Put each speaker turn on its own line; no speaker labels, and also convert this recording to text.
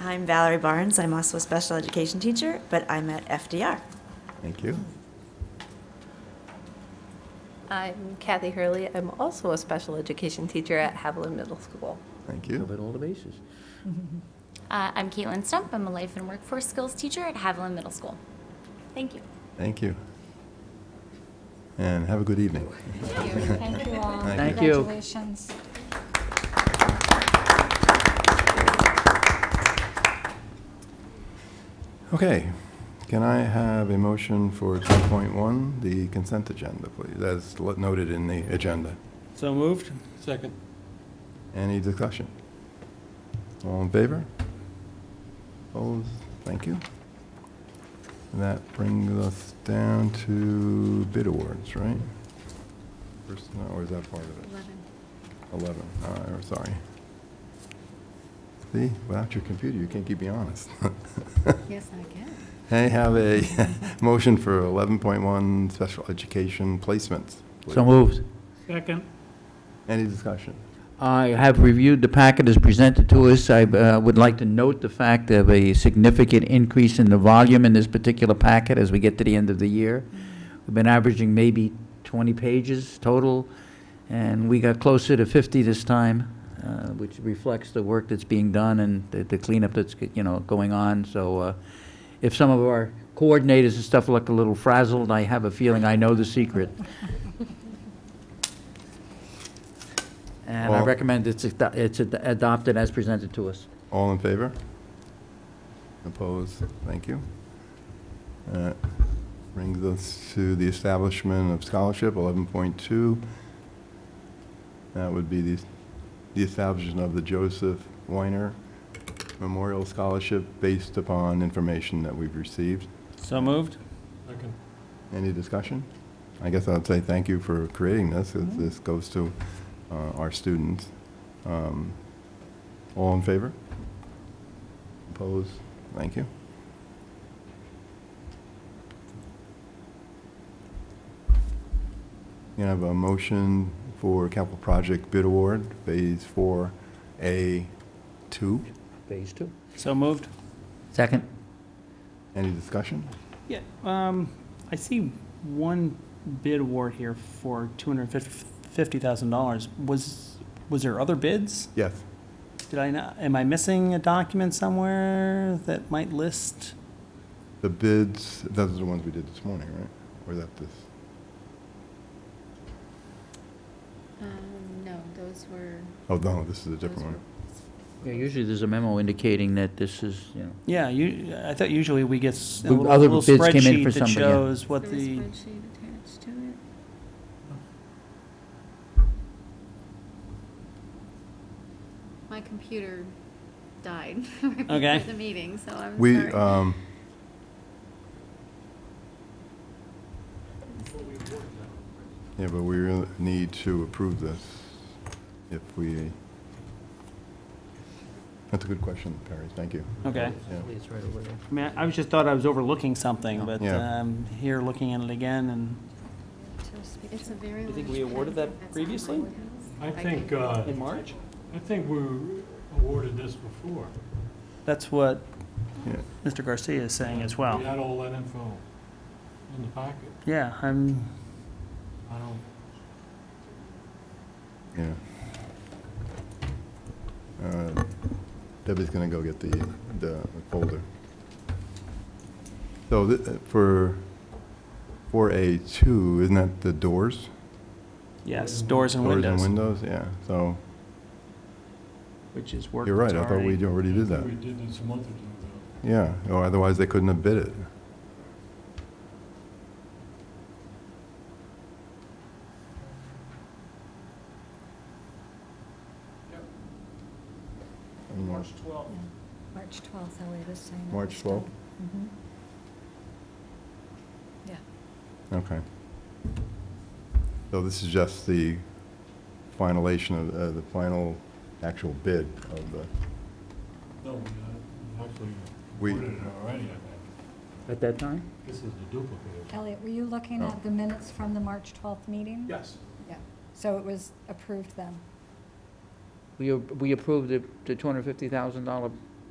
I'm Valerie Barnes. I'm also a special education teacher, but I'm at FDR.
Thank you.
I'm Kathy Hurley. I'm also a special education teacher at Haviland Middle School.
Thank
You
you.
covered all the bases.
Uh, I'm Caitlin Stump. I'm a life and workforce skills teacher at Haviland Middle School. Thank you.
Thank you. And have a good evening.
Thank you. Thank you all.
Thank you.
Congratulations.
Okay, can I have a motion for 2.1, the consent agenda, please, as lo- noted in the agenda?
So moved? Second.
Any discussion? All in favor? Opposed? Thank you. That brings us down to bid awards, right? First, no, or is that part of it? 11, all right, I'm sorry. See, without your computer, you can't keep me honest.
Yes, I can.
I have a motion for 11.1 special education placements. please.
So moved.
Second.
Any discussion?
I have reviewed the packet as presented to us. I uh, would like to note the fact of a significant increase in the volume in this particular packet as we get to the end of the year. We've been averaging maybe 20 pages total, and we got closer to 50 this time, uh, which reflects the work that's being done and the- the cleanup that's, you know, going on. So uh, if some of our coordinators and stuff look a little frazzled, I have a feeling I know the secret. And I
Well-
recommend it's ado- it's ad- adopted as presented to us.
All in favor? Opposed? Thank you. Uh, Brings us to the establishment of scholarship, 11.2. That would be the the establishment of the Joseph Weiner Memorial Scholarship based upon information that we've received.
So moved? Second.
Any discussion? I guess I'd say thank you for creating this. This- This goes to uh, our students. Um, All in favor? Opposed? Thank you. You have a motion for capital project bid award, Phase 4A2.
Phase two.
So moved?
Second?
Any discussion?
Yeah, um, I see one bid award here for two hundred fifty thousand dollars. Was, was there other bids?
Yes.
Did I not, am I missing a document somewhere that might list?
The bids, those are the ones we did this morning, right? Or is that this?
Um, no, those were.
Oh, no, this is a
those
different one.
were-
Yeah, usually there's a memo indicating that this is, you know.
Yeah, you, I thought usually we get s- a
The
little
other
little
bids came in for
spreadsheet that
somebody, yeah.
shows what
There was a
the,
spreadsheet attached to it. My computer died right
Okay.
before the meeting, so I'm
We,
sorry.
um, yeah, but we really need to approve this if we, that's a good question, Perry, thank you.
okay.
Yeah.
It's right over there.
I mean, I was just thought I was overlooking something, but,
Yeah.
um, here looking at it again and.
It's a very
You
large.
think we awarded
packet.
that
That's on
previously?
my house.
I think, uh,
In March?
I think we awarded this before.
That's what
Yeah.
Mr. Garcia is saying as well.
We had all that info in the packet.
Yeah, I'm,
I don't,
Yeah. Uh, Debbie's gonna go get the, the folder. So thi- for, for A two, isn't that the doors?
yes, doors and
Doors and
windows,
windows, yeah, so,
which is work
you're right, I
that's
thought
already-
we already did that.
we did this a month or two ago.
Yeah, or otherwise they couldn't have bid it. And Mar-
March 12th, Ellie was saying. that
March
was done.
12th?
Mm-hmm.
Okay. So this is just the finalization of, uh, the final actual bid of the,
No, we
We-
uh, actually awarded it already, I think.
At that time?
This is the duplicate.
Elliot, were you looking
Oh.
at the minutes from the March 12th meeting?
Yes.
Yeah, so it was approved then.
We, a- we approved the, the $250,000